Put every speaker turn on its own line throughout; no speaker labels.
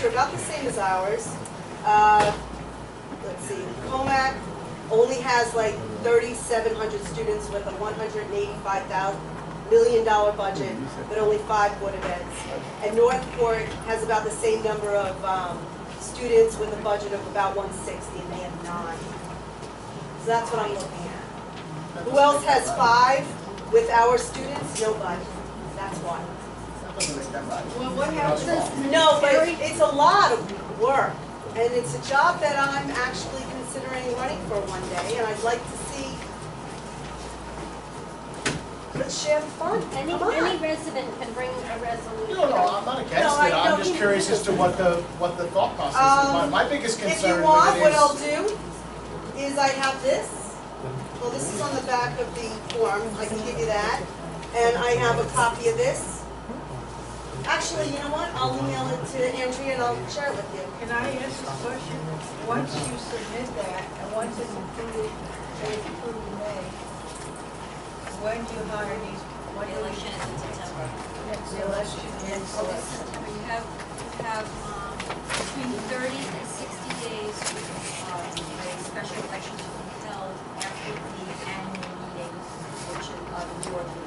They're about the same as ours. Uh, Let's see, Comac only has like 3,700 students with a 185,000 million dollar budget, but only five board events. And Northport has about the same number of um, students with a budget of about 160, and they have nine. So that's what I'm looking at. Who else has five with our students? Nobody. That's why.
Well, what happens?
No, but it's a lot of work, and it's a job that I'm actually considering running for one day, and I'd like to see. But share the fun,
Any,
come
any
on.
resident can bring a resolution.
No, no, I'm not against it,
No, I know
I'm just
you-
curious as to what the, what the thought process is. My,
Um,
my biggest
If
concern
you
with
want,
it
what
is-
I'll do is I have this, well, this is on the back of the form, I can give you that, and I have a copy of this. Actually, you know what, I'll email it to Andrea and I'll share it with you.
Can I ask a question? Once you submit that, and once it's included, say it's approved in May, when do you hire these, when
The
do
election
you,
is in September.
the election is?
So in September, you have, you have um, between 30 and 60 days, um, a special election to be held after the annual meeting, which is on the fourth of July-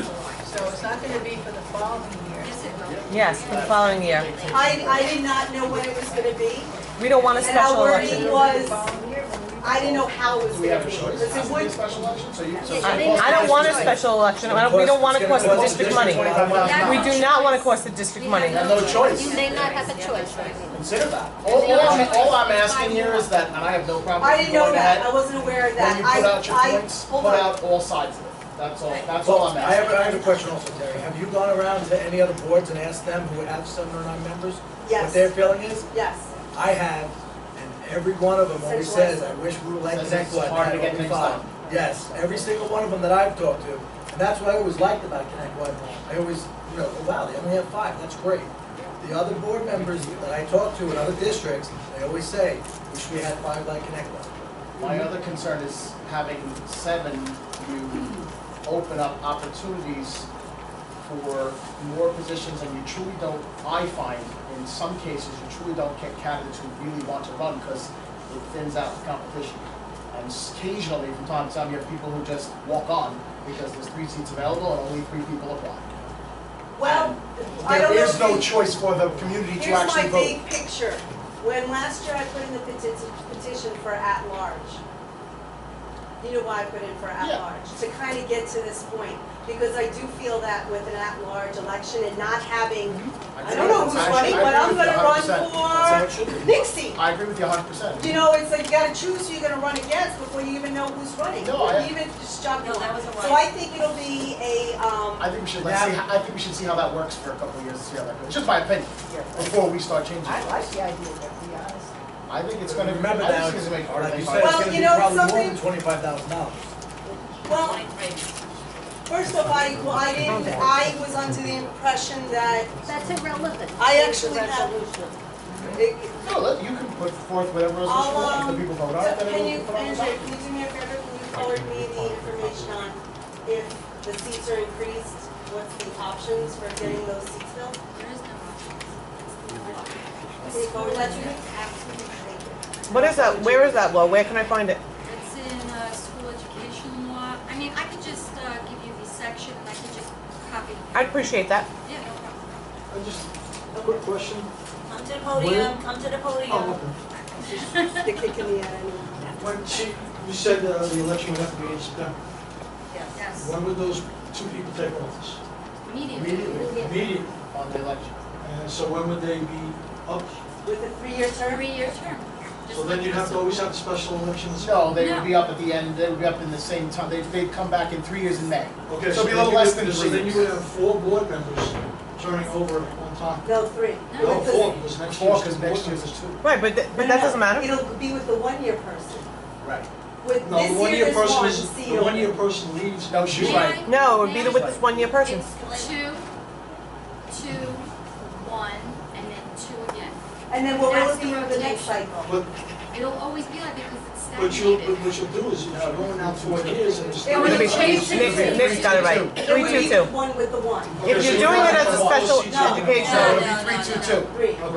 July.
So it's not gonna be for the following year.
Yes, it will.
Yes, for the following year.
I, I did not know when it was gonna be,
We don't want a
And
special
our
election.
meeting
For the
was-
following year, when we-
I didn't know how it was
Do we
gonna
have
be.
a choice?
Because
Has
it
to be a
would,
special election, so you, so.
Yeah,
so
I,
it costs
I don't want a
us-
special election. I don't, we don't want to cost the
cost us
district money.
$25,000.
We do not want to cost the district money.
have no choice.
You may not have a choice, right?
Consider that. All, all I'm, all I'm asking here is that, and I have no problem
I
with you
didn't know
going
that, I
ahead.
wasn't aware of
When
that.
you
I,
put out your
I-
points,
hold on.
put out all sides of it. That's all, that's all I'm
I have,
asking.
I have a question also, Terry. Have you gone around to any other boards and asked them who have seven or nine members? What their
Yes,
feeling is?
yes.
I have, and every one of them always says, I wish we were like
Says
the next
it's
one.
harder to
that
get
would be
next
fine."
time.
Yes, every single one of them that I've talked to, and that's what I always liked about Connect One. I always, you know, oh, wow, they only have five, that's great. The other board members that I talk to in other districts, they always say, wish we had five like Connect One.
My other concern is having seven, you open up opportunities for more positions and you truly don't, I find, in some cases, you truly don't get candidates who really want to run because it thins out the competition. And occasionally, from time to time, you have people who just walk on because there's three seats available and only three people apply.
Well, I don't know.
There is
if
no
you-
choice for the community to
Here's my
actually vote.
big picture. When last year I put in the petition, petition for at-large. You know why I put in for
Yeah.
at-large? To kind of get to this point, because I do feel that with an at-large election and not having,
Mm-hmm.
I don't know who's running, but I'm gonna run for Nixie.
I agree with you hundred percent.
You know, it's like you gotta choose who you're gonna run against before you even know who's running.
No, I-
Or Even just jump.
No, that was a
So I think it'll be a, um,
I think we should, let's see, I think we should see how that works for a couple of years, see how that goes, just my opinion, before we start changing.
I
it.
like the idea, to be honest.
I think it's gonna,
Remember
I
now,
think it's gonna make hard
like you
things
said,
hard.
it's
Well,
gonna
you
be
know
probably more than
something?
twenty-five thousand dollars.
well,
Like, right.
First of all, I, well, I didn't, I was under the impression that
That's irrelevant.
I
It's a
actually have,
resolution.
No, let, you can put forth whatever resolution you want, if the people vote on it,
can
then
you,
it'll put on the
Andrew,
ballot.
can you do me a favor, can you forward me the information on if the seats are increased, what's the options for getting those seats filled?
There is no option.
Can you forward that to me?
Absolutely.
Thank you.
What is that? Where is that law? Where can I find it?
It's in uh, school education law. I mean, I could just uh, give you the section, and I could just copy.
I'd appreciate that.
Yeah, no problem.
I just, a quick question.
Come to the podium, come to the podium.
They're kicking me out anyway.
When she, you said uh, the election would have to be in September.
Yes.
When would those two people take office?
Immediately.
Immediately
Immediately.
on the election.
And so when would they be up?
With a three-year term?
Three-year term.
So then you'd have to always have special elections?
No, they would be up at the end, they would be up in the same time, they, they'd come back in three years in May.
Okay,
So it'd be a
then
little
you
less
would-
than
So
three
then you
years.
would have four board members turning over at one time.
No, three.
No,
No,
With the-
four, because next
Four,
year's.
'cause next year's is
two.
Right, but, th- but
No,
that
no,
doesn't matter.
It'll be with the one-year person.
Right.
With
No, the
this year,
one-year
there's
person
one
is,
seat.
the one-year person leaves.
No, she's
May
right.
I-
No, it would
may
be the-
I-
with this one year person.
It's two, two, one, and then two again.
And then what will
That's
it
the
be for the next
rotation.
cycle?
But,
It'll always be like because it's
but you, but
stagnated.
what you'll do is, if you're going out four years and it's.
It
It's gonna be-
would change
Nick- Nick's got it right.
It would
Three
be
two two.
one with the one.
If you're doing it as a special
No.
education.
So
No,
it'd be
no,
three, two,
no,
two.
Three.
Okay.